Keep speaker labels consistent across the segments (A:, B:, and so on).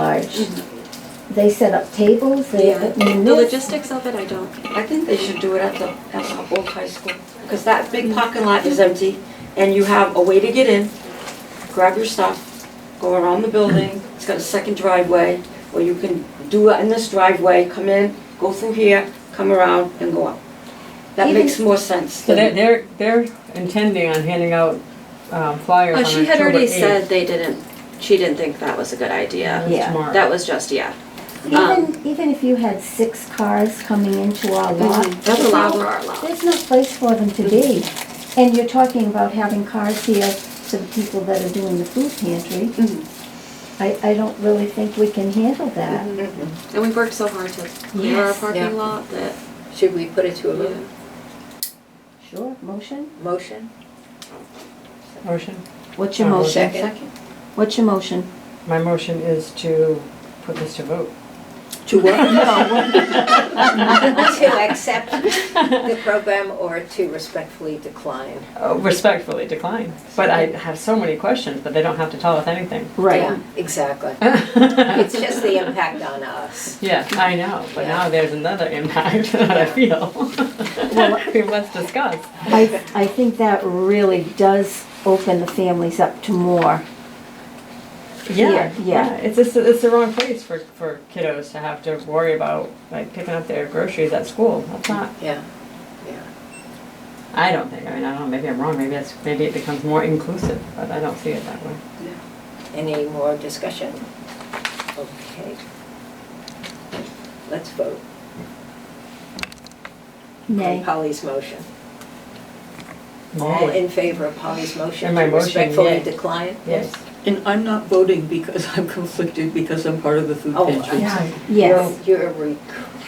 A: large. They set up tables, they,
B: Yeah,
A: I mean,
B: the
A: this,
B: logistics of it, I don't.
C: I think they should do it at the, at the old high school, because that big parking lot is empty, and you have a way to get in, grab your stuff, go around the building, it's got a second driveway, or you can do it in this driveway, come in, go through here, come around, and go up. That makes more sense.
D: So they're, they're, they're intending on handing out um, flyers
B: Oh,
D: on
B: she had
D: October
B: already
D: 8th.
B: said they didn't, she didn't think that was a good idea.
D: That's
A: Yeah.
D: uh, tomorrow.
B: That was just, yeah. um,
A: even, even if you had six cars coming into our Mm-hmm. lot,
B: That's allowed for our lot.
A: there's no place for them to be. And you're talking about having cars here for the people that are doing the food pantry.
B: Mhm.
A: I, I don't really think we can handle that.
C: Mm-hmm.
B: And we've worked so hard to clear our
E: Yes. Yeah.
B: parking lot that,
E: Should we put it to a
B: yeah.
E: vote?
A: Sure, motion?
E: motion?
D: Motion,
A: What's your
D: Uh,
A: motion?
E: Second.
A: What's your motion?
D: my motion is to put this to vote.
C: To what?
E: To accept the program or to respectfully decline?
D: Oh, Respectfully decline, but I have so many questions, but they don't have to tell us anything.
E: Yeah, Exactly. It's just the impact on us.
D: Yeah, I know, but now there's another impact that I feel. We must discuss.
A: I, I think that really does open the families up to more.
D: Yeah,
A: Here, yeah.
D: yeah, it's just, it's the wrong place for, for kiddos to have to worry about, like, picking up their groceries at school, that's not.
E: Yeah, yeah.
D: I don't think, I mean, I don't know, maybe I'm wrong, maybe that's, maybe it becomes more inclusive, but I don't see it that way.
E: Any more discussion? Okay. Let's vote on
A: Nay.
E: Polly's motion. All
D: Nay.
E: in favor of Polly's motion
D: And my
E: to
D: motion,
E: respectfully
D: yay.
E: decline?
D: Yes.
F: And I'm not voting because I'm conflicted because I'm part of the food
E: Oh,
F: pantry.
E: yeah.
A: Yes.
E: You're you're rec-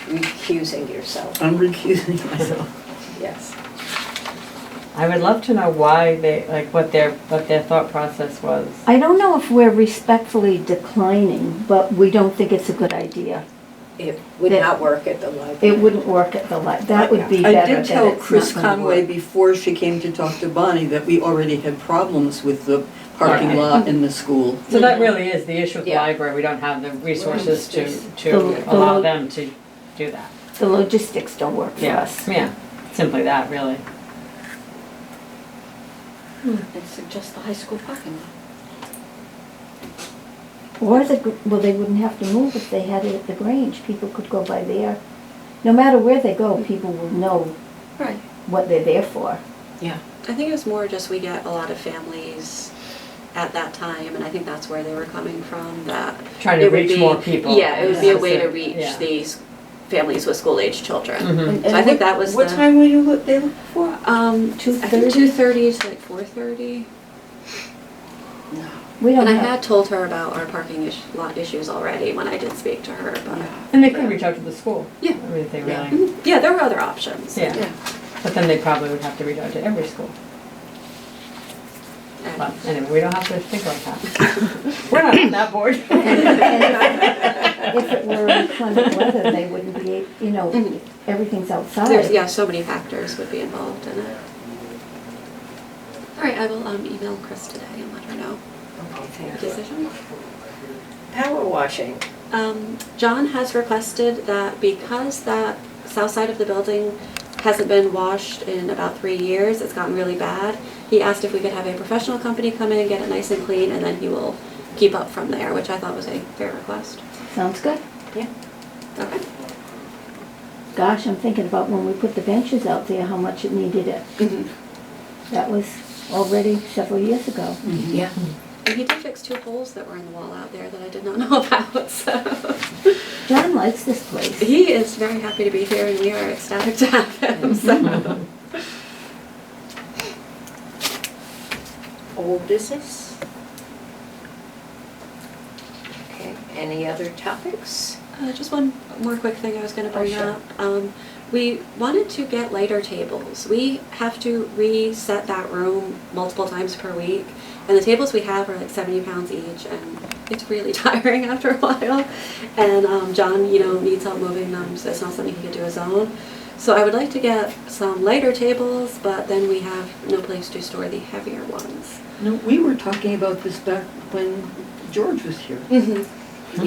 E: recusing yourself,
F: I'm recusing myself.
E: yes.
D: I would love to know why they, like, what their, what their thought process was.
A: I don't know if we're respectfully declining, but we don't think it's a good idea.
E: It would
A: That-
E: not work at the library.
A: It wouldn't work at the li, that would be better
F: I
A: that
F: did
A: it's
F: tell
A: not
F: Chris
A: gonna
F: Conway
A: work.
F: before she came to talk to Bonnie that we already had problems with the parking
D: Right.
F: lot in the school.
D: So that really is the issue with the
E: Mm-hmm. Yeah.
D: library, we don't have the resources to,
A: The-
D: to
A: the
D: allow
A: lo-
D: them to do that.
A: The logistics don't work for us.
D: Yeah, simply that, really.
C: And suggest the high school parking lot.
A: Or the, gr- well, they wouldn't have to move if they had it at the Grange, people could go by there. No matter where they go, people will know
B: Right.
A: what they're there for.
E: Yeah.
B: I think it was more just we get a lot of families at that time, and I think that's where they were coming from, that.
D: Trying to
B: it would
D: reach
B: be-
D: more people.
B: Yeah, it would be a way to
D: Specific, yeah.
B: reach these families with school-aged children.
D: Mhm.
C: And-
B: So Mm. I
C: and
B: think
C: what-
B: that was
C: What
B: the-
C: time were you lo- there for?
B: Um, I think
A: 2:30?
B: two thirty to like four thirty.
A: We don't
B: And I
A: have,
B: had told her about our parking ish- lot issues already when I did speak to her, but,
D: And they could reach out to the school.
B: Yeah.
D: I mean, if they
E: Yeah. Mm-hmm.
D: really,
B: Mhm. yeah, there were other options.
D: yeah, but then they probably would have to reach out to every school.
B: And-
D: But anyway, we don't have to think like that. We're not on that board.
A: if it were inclement weather, they wouldn't be, you know,
B: Mhm.
A: everything's
B: There's,
A: outside.
B: yeah, so many factors would be involved in it. All right, I will um, email Chris today and let her know
E: Okay,
B: the
E: thank you.
B: decision.
E: Power washing,
B: Um, John has requested that because that south side of the building hasn't been washed in about three years, it's gotten really bad. He asked if we could have a professional company come in and get it nice and clean, and then he will keep up from there, which I thought was a fair request.
A: Sounds good.
B: Okay.
A: Gosh, I'm thinking about when we put the benches out there, how much it needed it. That was already several years ago.
E: yeah.
B: And he did fix two holes that were in the wall out there that I did not know about, so.
A: John likes this place.
B: He is very happy to be here, and we are ecstatic to have him, so.
E: Old business? Okay, any other topics?
B: Uh, just one more quick thing I was going to
E: Oh,
B: bring
E: sure.
B: up. Um, we wanted to get lighter tables. We have to reset that room multiple times per week, and the tables we have are like 70 pounds each, and it's really tiring after a while. And um, John, you know, needs help moving them, so it's not something he could do his own. So I would like to get some lighter tables, but then we have no place to store the heavier ones.
F: No, we were talking about this back when George was here.
B: Mm-hmm.